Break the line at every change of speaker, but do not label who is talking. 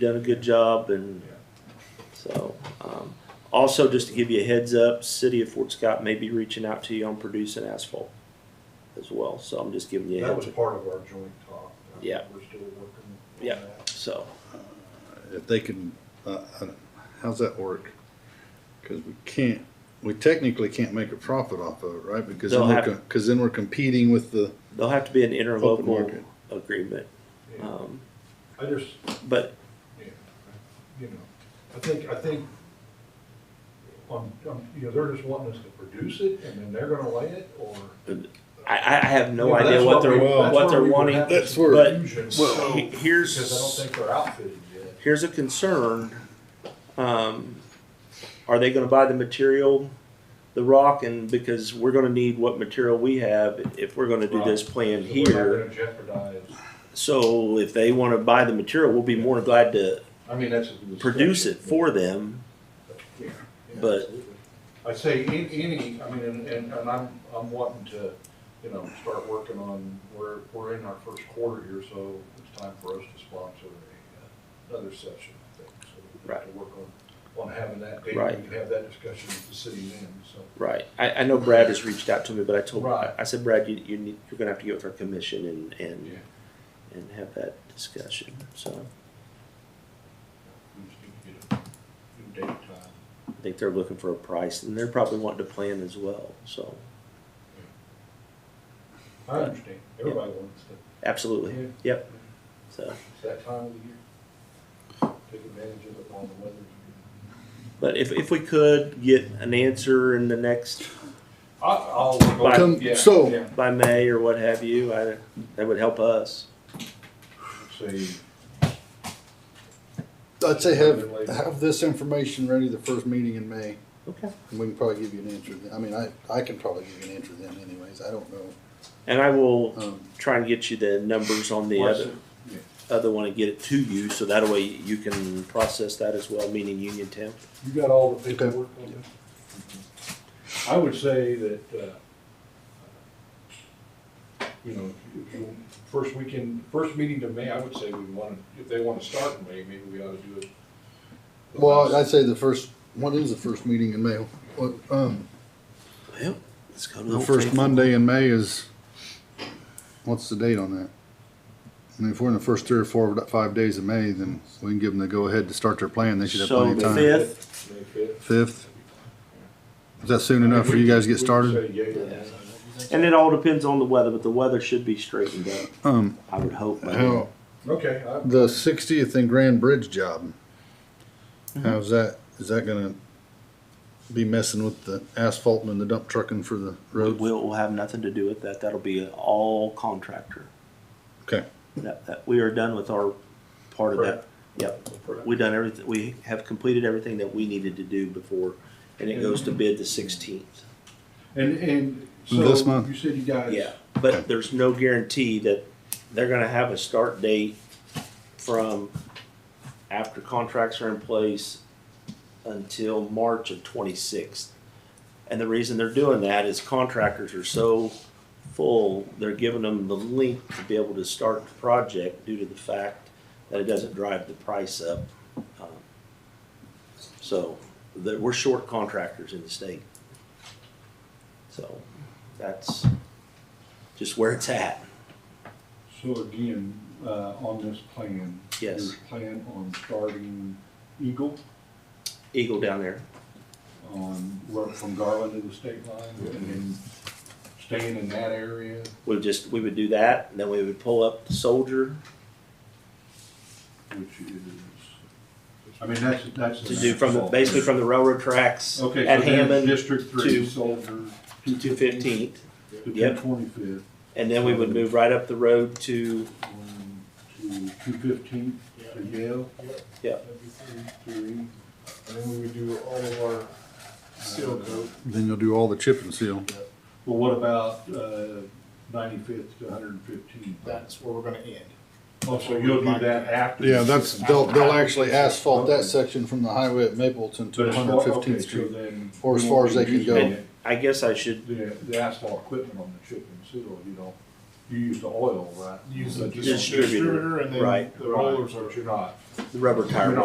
done a good job and so, um, also just to give you a heads up, City of Fort Scott may be reaching out to you on producing asphalt as well, so I'm just giving you a
That
heads
was
up,
part of our joint talk. Uh,
Yeah.
We're still working. on
Yeah.
that.
so.
if they can, uh, I don't- how's that work? Cause we can't, we technically can't make a profit off of it, right? Because then
They'll
we're,
have-
co- cause then we're competing with the,
There'll have to be an
Open
interlocal
market.
agreement,
Yeah.
um,
I just,
but,
yeah, you know, I think, I think, um, um, you know, they're just wanting us to produce it and then they're gonna lay it or.
I, I I have no
You know,
idea
that's
what they're,
we- that's
what
where
they're
we were
wanting.
having
That's
some
where-
confusion,
Well, he- here's-
Because I don't think they're outfitted yet.
Here's a concern, um, are they gonna buy the material, the rock, and because we're gonna need what material we have if we're gonna do this plan
So we're not
here.
gonna Jeopardize,
So if they want to buy the material, we'll be more than glad to
I mean, that's. a
produce it
discussion.
for them.
Yeah, yeah,
But-
absolutely. I'd say any, any, I mean, and, and and I'm, I'm wanting to, you know, start working on, we're, we're in our first quarter here, so it's time for us to sponsor a, uh, another session, I think. So we have to work on, on having that date,
Right.
we can have that discussion with the city then, so.
Right. I, I know Brad has reached out to me, but I told
Right.
I said, Brad, you, you need, you're going to have to get with our commission and and
Yeah.
and have that discussion. So
We just need to get a new date time.
I think they're looking for a price, and they're probably wanting to plan as well. So
I understand, everybody wants to,
absolutely,
Yeah.
yep. So,
it's that time of the year. Take advantage of it while the weather's good.
but if if we could get an answer in the next
I, I'll.
Right.
Come-
yeah,
so-
yeah.
by May or what have you, I, that would help us.
Say,
I'd say have, have this information ready the first meeting in May.
Okay.
And we can probably give you an answer then. I mean, I, I can probably give you an answer then anyways. I don't know.
And I will
Um,
try and get you the numbers on the
what's
other.
it-
other one and get it to you, so that way you can process that as well, meaning Union temp.
You got all the paperwork on it? I would say that, uh, you know, if you- first weekend, first meeting to May, I would say we want to, if they want to start in May, maybe we ought to do it. the
Well, I'd
last-
say the first, what is the first meeting in May? What, um,
Well, let's go to
the first Monday in May is, what's the date on that? I mean, if we're in the first three or four, five days of May, then we can give them the go-ahead to start their plan. They should have
So
plenty of
the
time.
fifth.
May fifth.
Fifth? Is that soon enough for you guys to
We
get
could
started?
say yea or nay.
And it all depends on the weather, but the weather should be straightened up,
Um,
I would hope. by then.
how,
Okay, I,
the sixtieth and Grand Bridge job,
Mm-hmm.
how's that, is that gonna be messing with the asphalt and the dump trucking for the
We'll,
roads?
we'll have nothing to do with that, that'll be an all contractor.
Okay,
That, that, we are done with our part of that.
Correct.
Yep, we done everything, we have completed everything that we needed to do before, and it goes to bid the sixteenth.
and, and
This
so
month?
you said you guys.
Yeah, but there's no guarantee that they're gonna have a start date from after contracts are in place until March of twenty-sixth. And the reason they're doing that is contractors are so full, they're giving them the length to be able to start the project due to the fact that it doesn't drive the price up. Um, So, that, we're short contractors in the state. So, that's just where it's at.
So again, uh, on this plan.
Yes.
There's plan on starting Eagle
Eagle down there.
on, work from Garland to the state line and then staying in that area.
We would just, we would do that, and then we would pull up the soldier
which is, I mean, that's, that's.
to do from, the basically from the railroad tracks
Okay,
at
so then
Hammond
District Three,
to-
Soldier.
to two fifteenth.
To two
Yep.
twenty-fifth,
And then we would move right up the road to,
um, to two fifteenth, to Yale.
Yep.
Three. And then we would do all of our seal coat.
then you'll do all the chip and seal.
Well, what about, uh, ninety-fifth to hundred and fifteenth?
that's where we're gonna end.
Oh, so you'll do that after?
Yeah, that's, they'll, they'll actually asphalt that section from the highway at Mapleton to
But
one
as far-
hundred fifteenth
okay, so
Street.
then
or as
we
far
won't
as
be
they can
using
go.
it.
I guess I should,
The, the asphalt equipment on the chip and seal, you don't, you use the oil, right?
Use the
But you don't-
Distributor,
distributor and then
right.
the rollers are.
But you're not.
the rubber tire.
You're not